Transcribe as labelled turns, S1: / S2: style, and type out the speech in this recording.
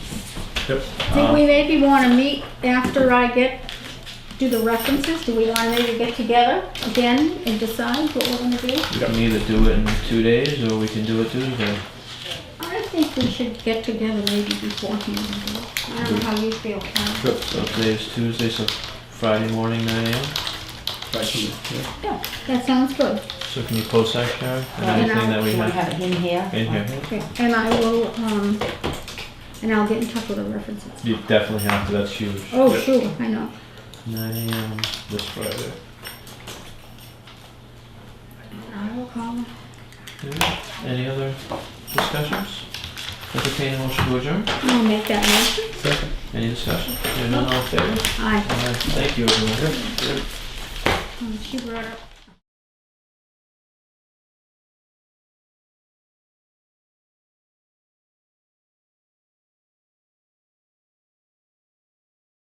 S1: Yep.
S2: think we maybe want to meet after I get, do the references, do we want to maybe get together again and decide what we're gonna do?
S3: We can either do it in two days or we can do it Tuesday.
S2: I think we should get together maybe beforehand. and do it. I don't know how you feel, Karen.
S3: So today's Tuesday, so Friday morning, 9 a.m.
S1: Right from there,
S2: Yeah, that sounds good.
S3: So can you post that, Sharon? And
S2: Right.
S3: anything that we
S4: Do you want to
S3: have
S4: have it in here?
S3: in here?
S2: Okay, and I will, um, and I'll get in touch with the references.
S3: You definitely have to, that's huge.
S2: Oh,
S1: Yep.
S2: sure, I know.
S3: 9 a.m. this Friday.
S2: I will call them.
S3: Okay. Any other discussions? Entertaining motion to adjourn?
S2: I'll make that motion.
S1: yeah. Second.
S3: Any discussion? Hearing none, all in favor?
S2: Aye.
S3: All right, thank you, everyone.
S2: Um, She brought up